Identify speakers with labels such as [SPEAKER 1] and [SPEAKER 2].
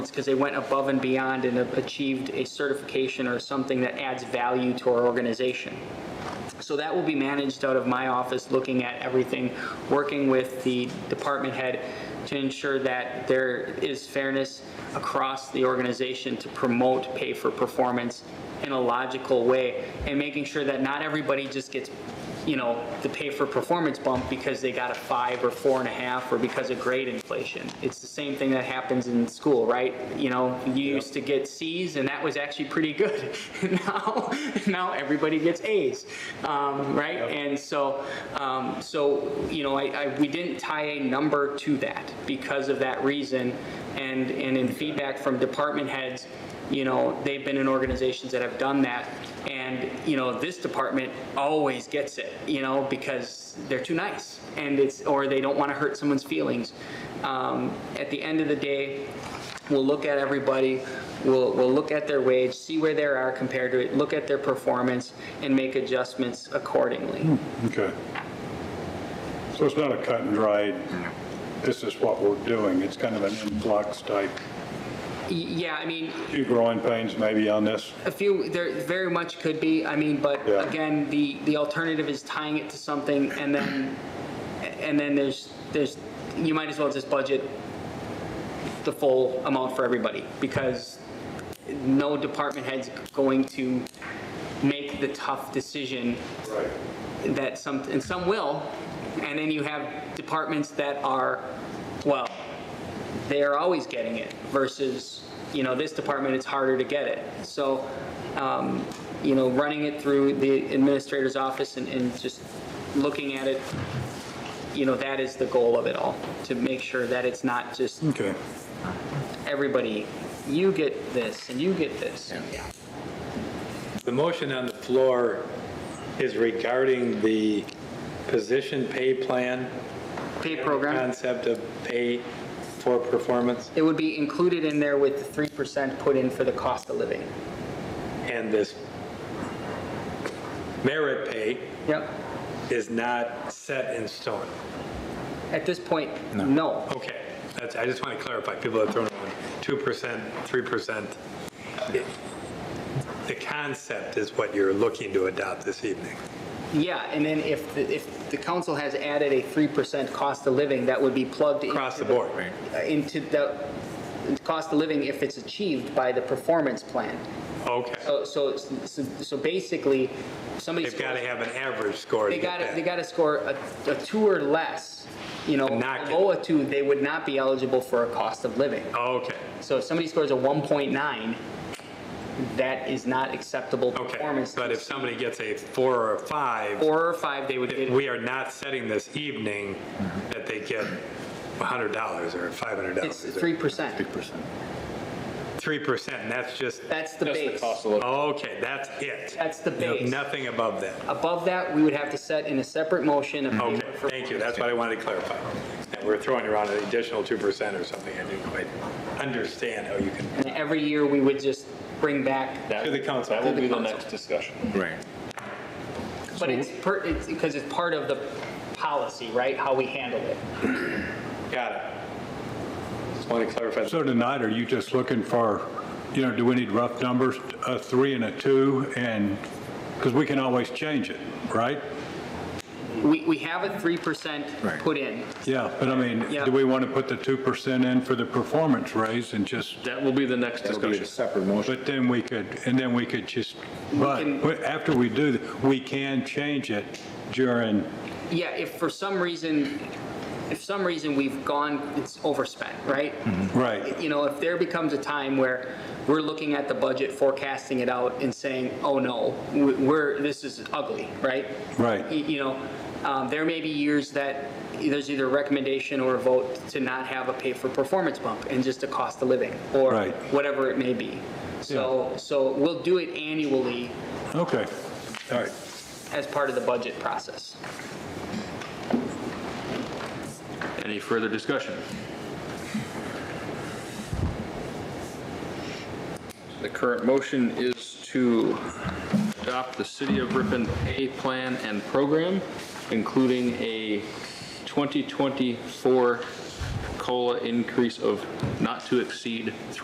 [SPEAKER 1] because they went above and beyond and achieved a certification or something that adds value to our organization. So that will be managed out of my office, looking at everything, working with the department head to ensure that there is fairness across the organization to promote pay for performance in a logical way and making sure that not everybody just gets, you know, the pay for performance bump because they got a five or four and a half or because of grade inflation. It's the same thing that happens in school, right? You know, you used to get C's and that was actually pretty good. now, now everybody gets A's, um, right? And so, um, so you know, I, I we didn't tie a number to that because of that reason. And and in feedback from department heads, you know, they've been in organizations that have done that. And you know, this department always gets it, you know, because they're too nice, and it's or they don't want to hurt someone's feelings. Um, at the end of the day, We'll look at everybody, we'll, we'll look at their wage, see where they are compared to it, look at their performance, and make adjustments accordingly.
[SPEAKER 2] Okay. So it's not a cut and dried, this is what we're doing, it's kind of an influx type,
[SPEAKER 1] Y- Yeah, I mean,
[SPEAKER 2] few growing pains maybe on this.
[SPEAKER 1] a few, there very much could be, I mean, but
[SPEAKER 2] Yeah.
[SPEAKER 1] again, the, the alternative is tying it to something and then, and then there's, there's, you might as well just budget the full amount for everybody, because no department head's going to make the tough decision
[SPEAKER 2] Right.
[SPEAKER 1] that some, and some will, and then you have departments that are, well, they're always getting it versus, you know, this department, it's harder to get it. So, um, you know, running it through the administrator's office and, and just looking at it, you know, that is the goal of it all, to make sure that it's not just
[SPEAKER 2] Okay.
[SPEAKER 1] everybody, you get this and you get this.
[SPEAKER 3] The motion on the floor is regarding the position pay plan.
[SPEAKER 1] Pay program,
[SPEAKER 3] Concept of pay for performance
[SPEAKER 1] it would be included in there with the three percent put in for the cost of living.
[SPEAKER 3] and this merit pay
[SPEAKER 1] Yep.
[SPEAKER 3] is not set in stone.
[SPEAKER 1] At this point, no.
[SPEAKER 3] Okay, that's, I just want to clarify, people are throwing around 2%, 3%. It- The concept is what you're looking to adopt this evening.
[SPEAKER 1] Yeah, and then if, the- if the council has added a 3% cost of living, that would be plugged into.
[SPEAKER 3] Across the board, right?
[SPEAKER 1] Into the cost of living if it's achieved by the performance plan.
[SPEAKER 3] Okay.
[SPEAKER 1] So, so, so so basically, somebody.
[SPEAKER 3] They've got to
[SPEAKER 1] scores-
[SPEAKER 3] have an average score to
[SPEAKER 1] They
[SPEAKER 3] get
[SPEAKER 1] gotta,
[SPEAKER 3] that.
[SPEAKER 1] they gotta score a, a two or less, you know.
[SPEAKER 3] Not get-
[SPEAKER 1] Below a two, they would not be eligible for a cost of living.
[SPEAKER 3] Okay,
[SPEAKER 1] So if somebody scores a 1.9, that is not acceptable
[SPEAKER 3] okay.
[SPEAKER 1] performance.
[SPEAKER 3] But if somebody gets a four or a five,
[SPEAKER 1] Four or five, they would get.
[SPEAKER 3] we are not setting this evening that they get $100 or
[SPEAKER 1] It's
[SPEAKER 3] $500.
[SPEAKER 1] three percent.
[SPEAKER 3] 3%, and that's just,
[SPEAKER 1] That's the base.
[SPEAKER 3] okay, that's it.
[SPEAKER 1] That's the base.
[SPEAKER 3] Nothing above that.
[SPEAKER 1] Above that, we would have to set in a separate motion. a
[SPEAKER 3] Okay,
[SPEAKER 1] payment for-
[SPEAKER 3] thank you, that's what I wanted to clarify. That we're throwing around an additional 2% or something, I didn't quite understand how you can,
[SPEAKER 1] And every year, we would just bring back,
[SPEAKER 3] to the council.
[SPEAKER 4] That will be the
[SPEAKER 1] council.
[SPEAKER 4] next discussion.
[SPEAKER 5] Right.
[SPEAKER 1] but it's per, it's, because it's part of the policy, right? How we handle it.
[SPEAKER 3] Got it. Just want to clarify.
[SPEAKER 2] So tonight, are you just looking for, you know, do we need rough numbers, a three and a two, and, because we can always change it, right?
[SPEAKER 1] We, we have a three percent
[SPEAKER 5] Right.
[SPEAKER 1] put in.
[SPEAKER 2] Yeah, but I mean,
[SPEAKER 1] Yeah.
[SPEAKER 2] do we want to put the 2% in for the performance raise and just
[SPEAKER 4] That will be the next
[SPEAKER 5] It'll be
[SPEAKER 4] discussion.
[SPEAKER 5] a separate motion.
[SPEAKER 2] But then we could, and then we could just, but
[SPEAKER 1] can-
[SPEAKER 2] but after we do, th- we can change it during,
[SPEAKER 1] Yeah, if for some reason, if some reason we've gone, it's overspent, right?
[SPEAKER 2] right,
[SPEAKER 1] you know, if there becomes a time where we're looking at the budget, forecasting it out and saying, oh no, we- we're, this is ugly, right?
[SPEAKER 2] Right.
[SPEAKER 1] Y- You know, um, there may be years that there's either a recommendation or a vote to not have a pay for performance bump and just a cost of living or
[SPEAKER 2] Right.
[SPEAKER 1] whatever it may be. So, so we'll do it annually
[SPEAKER 2] okay, all right.
[SPEAKER 1] as part of the budget process.
[SPEAKER 4] Any further discussion? The current motion is to adopt the City of Ripon pay plan and program, including a 2024 COLA increase of not to exceed